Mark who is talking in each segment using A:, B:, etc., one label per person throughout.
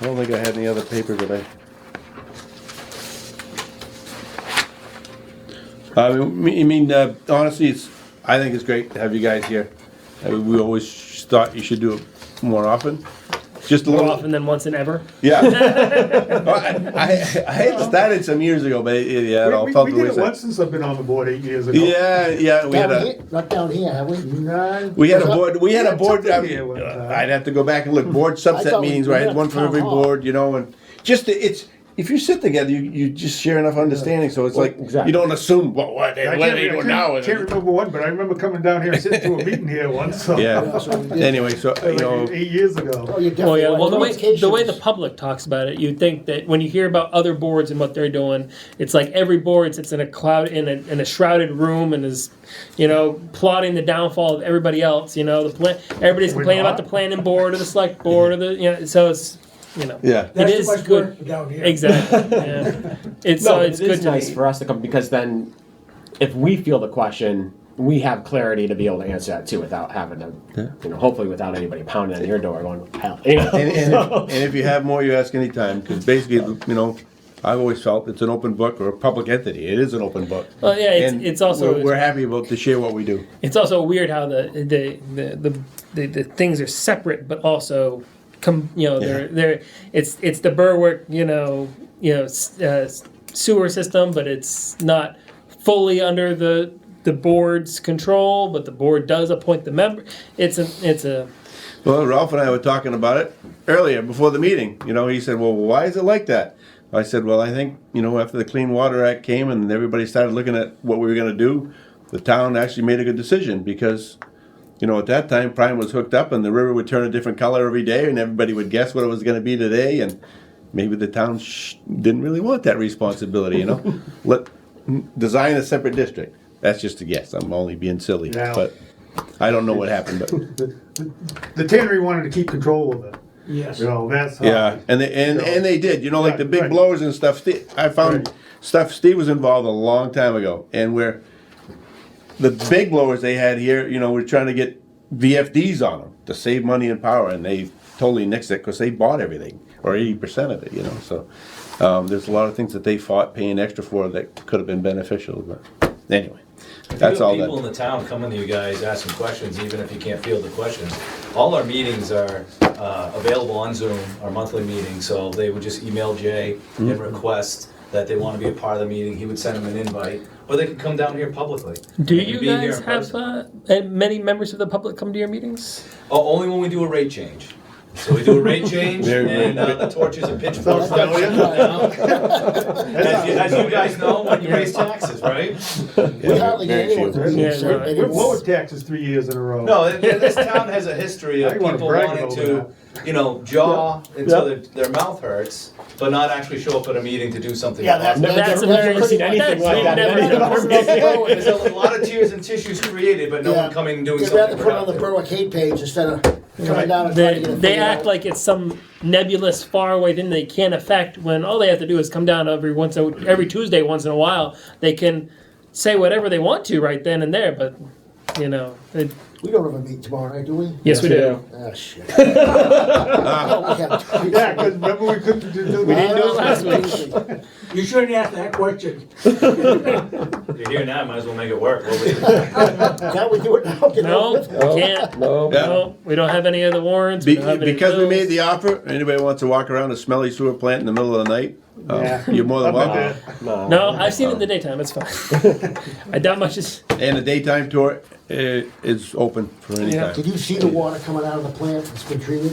A: I don't think I had any other paper today. I mean, I mean, uh, honestly, it's, I think it's great to have you guys here. I mean, we always thought you should do it more often. Just a
B: More
A: little,
B: often than once and ever.
A: yeah. Well, I, I, I had started some years ago, but it, yeah, it all
C: We,
A: fell
C: we,
A: to
C: we
A: the
C: did it
A: wayside.
C: once since I've been on the board eight years ago.
A: Yeah, yeah, we had
D: Down
A: a,
D: here, not down here, have we? None.
A: we had a
D: Up-
A: board, we had a
C: Yeah,
A: board,
C: something
A: I
C: here
A: mean,
C: one
A: uh,
C: time.
A: I'd have to go back and look, board
D: I
A: subset
D: thought we
A: meetings, where I had
D: did
A: one for
D: town
A: every
D: hall.
A: board, you know, and just, it's, if you sit together, you, you just share enough understanding, so it's like, you
D: exactly.
A: don't assume, well, what, what
C: I can't,
A: are
C: re-
A: they
C: I
A: doing
C: can't-
A: now?
C: can't remember one, but I remember coming down here and sitting to a meeting here once. So.
A: Yeah,
D: So we did-
A: anyway, so, you know,
C: Like eight years ago.
D: Oh, you
B: Oh
D: definitely.
B: yeah, well the way the way the
D: notifications.
B: public talks about it, you'd think that when you hear about other boards and what they're doing, it's like every board sits in a cloud in a, in a shrouded room and is, you know, plotting the downfall of everybody else. You know, the plan everybody's
C: We're
B: complaining about
C: not.
B: the planning board or the select board or the you know, so it's you know
A: yeah,
B: it
E: That's too
B: is
E: much
B: good
E: work for down here.
B: exactly. Yeah. It's
F: No,
B: so
F: but
B: it's
F: it
B: good
F: is
B: to
F: nice
B: be-
F: for us to come because then, if we feel the question, we have clarity to be able to answer that too, without having to, you know, hopefully without anybody pounding on your door going, hell, you know.
A: and, and, if,
F: so-
A: and if you have more, you ask anytime, because basically, you know, I've always felt it's an open book or a public entity, it is an open book.
B: Well, yeah, it's-
A: And
B: it's also-
A: We're, we're happy about to share what we do.
B: it's also weird how the the the the, the, the things are separate but also com- you know they're
A: Yeah.
B: they're it's it's the Berwick you know you know s- uh, s- sewer system but it's not fully under the the board's control but the board does appoint the member it's a it's a
A: Well, Ralph and I were talking about it earlier before the meeting. You know, he said, "Well, why is it like that?" I said, "Well, I think you know after the Clean Water Act came and everybody started looking at what we were going to do, the town actually made a good decision because." You know, at that time, Prime was hooked up, and the river would turn a different color every day, and everybody would guess what it was going to be today. And maybe the town sh- didn't really want that responsibility. You know, let design a separate district. That's just a guess. I'm only being silly,
C: Yeah.
A: but I don't know what happened. But
C: The tannery wanted to keep control of it.
E: Yes.
C: You know, that's how.
A: Yeah, and they and, and they did. You know, like the
C: Uh, Right,
A: big
C: right.
A: blowers and stuff. Steve, I found
C: Right.
A: stuff. Steve was involved a long time ago, and where the big blowers they had here, you know, we're trying to get VFDs on them to save money and power, and they totally nixed it because they bought everything or eighty percent of it. You know, so um, there's a lot of things that they fought paying extra for that could have been beneficial. But anyway, that's
G: you have
A: all
G: People in
A: that.
G: the town coming to you guys asking questions, even if you can't field the questions. All our meetings are uh, available on Zoom, our monthly meeting, so they would just email Jay
A: Mm-hmm.
G: and request that they want to be a part of the meeting. He would send them an invite, or they could come down here publicly.
B: do
G: They could
B: you
G: be here
B: guys
G: in
B: have
G: person.
B: uh, many members of the public come to your meetings
G: Oh, only when we do a rate change. So we do a rate change
A: Very
G: and uh, the torches and pitchforks.
D: That's
G: down here. As you- as you guys know, when you
B: Yeah.
G: raise taxes, right?
D: We hardly
A: Very
D: get anyone.
A: few.
D: from the
B: Yeah,
D: street,
B: no,
D: and
C: We're
D: it's-
C: lower taxes three years in a row.
G: No, th- th- this town has a history of
C: I wanna
G: people
C: brag
G: wanting
C: about
G: to, you know, jaw until their, their mouth hurts, but not actually show up at a meeting to do something.
D: Yeah, that's-
G: positive.
D: I've
B: that's
D: never-
B: hilarious.
D: never seen
B: That's-
F: anything like
B: we've
F: that.
B: never
F: Never
B: done
D: seen anything
B: that.
G: There's a lot of tears and tissues created, but no
D: Yeah.
G: one coming and doing
D: You'd
G: something.
D: rather put it on the
G: productive.
D: Berwick Hay page instead of coming down and trying
B: they,
D: to get it
B: they
D: figured
B: act
D: out.
B: like it's some nebulous faraway thing they can't affect when all they have to do is come down every once a, every tuesday once in a while they can say whatever they want to right then and there but you know it,
D: We don't have a meet tomorrow, night, do we?
B: yes, we
F: we
B: do
D: Ah, shit. Oh, we
C: Yeah,
D: have-
C: 'cause remember we couldn't do that.
B: we didn't do it last week
E: You shouldn't ask that question.
G: You're here now, might as well make it work. What we-
D: Can't we do it now? Get
B: no
D: over with?
B: we can't
A: Yeah.
B: no we don't have any of the warrants we
A: Be-
B: don't have any
A: because we
B: bills.
A: made the offer, anybody wants to walk around a smelly sewer plant in the middle of the night, um,
C: Yeah.
A: you're more than
C: I'm not
A: welcome.
C: there.
F: no.
B: no i've seen it in the daytime it's fine i doubt much is
A: And the daytime tour eh, is open for any
B: Yeah.
A: time.
D: Did you see the water coming out of the plant that's been treated?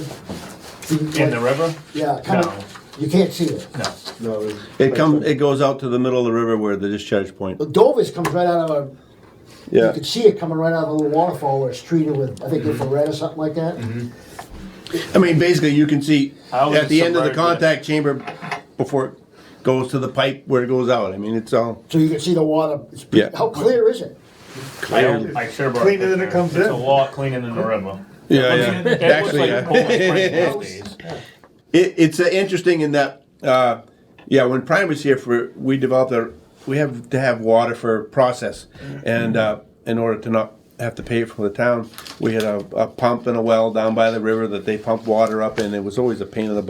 E: In the river?
D: Yeah, coming,
E: No.
D: you can't see it.
A: It comes, it goes out to the middle of the river where the discharge point.
D: The Dovis comes right out of a You
A: Yeah, Mm-hmm.
D: could see it coming right out of a little waterfall where it's treated with, I think, infrared or something like that.
A: I mean, basically, you can see
E: I was
A: at the end of the
E: submerged in it.
A: contact chamber before it goes to the pipe where it goes out. I mean, it's all
D: So you can see the water. It's pretty-
A: Yeah.
D: How clear is it?
E: I don't, I should have brought
C: Cleaner than it comes
E: It's
C: in.
E: a lot cleaner than the river.
A: yeah,
E: I mean,
A: yeah.
E: it looks
A: Actually,
E: like
A: yeah.
E: Poland Spring these days.
A: It, it's uh, interesting in that, uh, yeah, when Prime was here for, we developed a, we have to have water for process, and uh, in order to not have to pay it from the town, we had a, a pump and a well down by the river that they pumped water up in. It was always a pain in the butt.